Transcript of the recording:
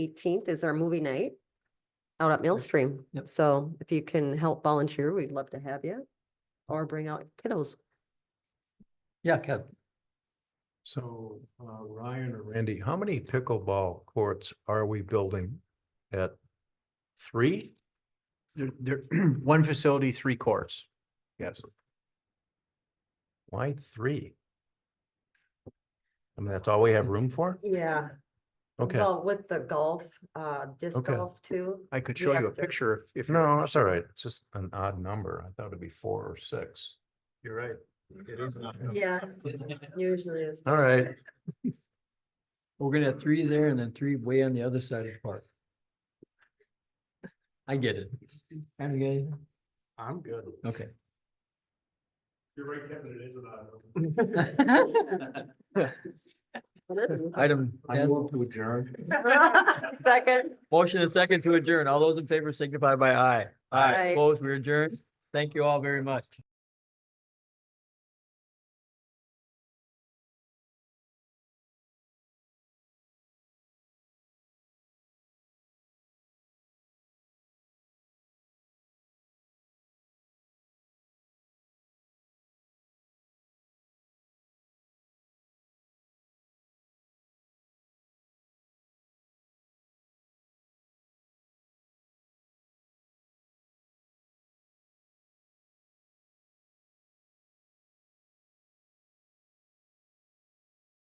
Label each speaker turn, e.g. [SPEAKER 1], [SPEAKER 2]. [SPEAKER 1] eighteenth is our movie night out at Millstream.
[SPEAKER 2] Yep.
[SPEAKER 1] So if you can help volunteer, we'd love to have you. Or bring out kiddos.
[SPEAKER 2] Yeah, Kev,
[SPEAKER 3] So, uh, Ryan or Randy, how many pickleball courts are we building at three?
[SPEAKER 4] There, there, one facility, three courts. Yes.
[SPEAKER 3] Why three? I mean, that's all we have room for?
[SPEAKER 1] Yeah.
[SPEAKER 3] Okay,
[SPEAKER 1] Well, with the golf, uh, disc
[SPEAKER 3] Okay.
[SPEAKER 1] golf too.
[SPEAKER 4] I could
[SPEAKER 1] You
[SPEAKER 4] show
[SPEAKER 1] have
[SPEAKER 4] you a
[SPEAKER 1] to-
[SPEAKER 4] picture if, if. you're
[SPEAKER 3] no, that's all right. It's just an odd number. I thought it'd be four or six. You're right. It is not.
[SPEAKER 1] Yeah, usually is.
[SPEAKER 3] All right,
[SPEAKER 2] we're gonna have three there and then three way on the other side of the park. I get it. Adam, you got anything?
[SPEAKER 3] I'm good.
[SPEAKER 2] Okay.
[SPEAKER 3] You're right, Kevin, it is an odd number.
[SPEAKER 2] Item
[SPEAKER 3] I
[SPEAKER 2] 10,
[SPEAKER 3] move to adjourn.
[SPEAKER 1] Second.
[SPEAKER 2] motion and second to adjourn. All those in favor signify by aye.
[SPEAKER 1] Aye.
[SPEAKER 2] Aye, opposed, we adjourn. Thank you all very much.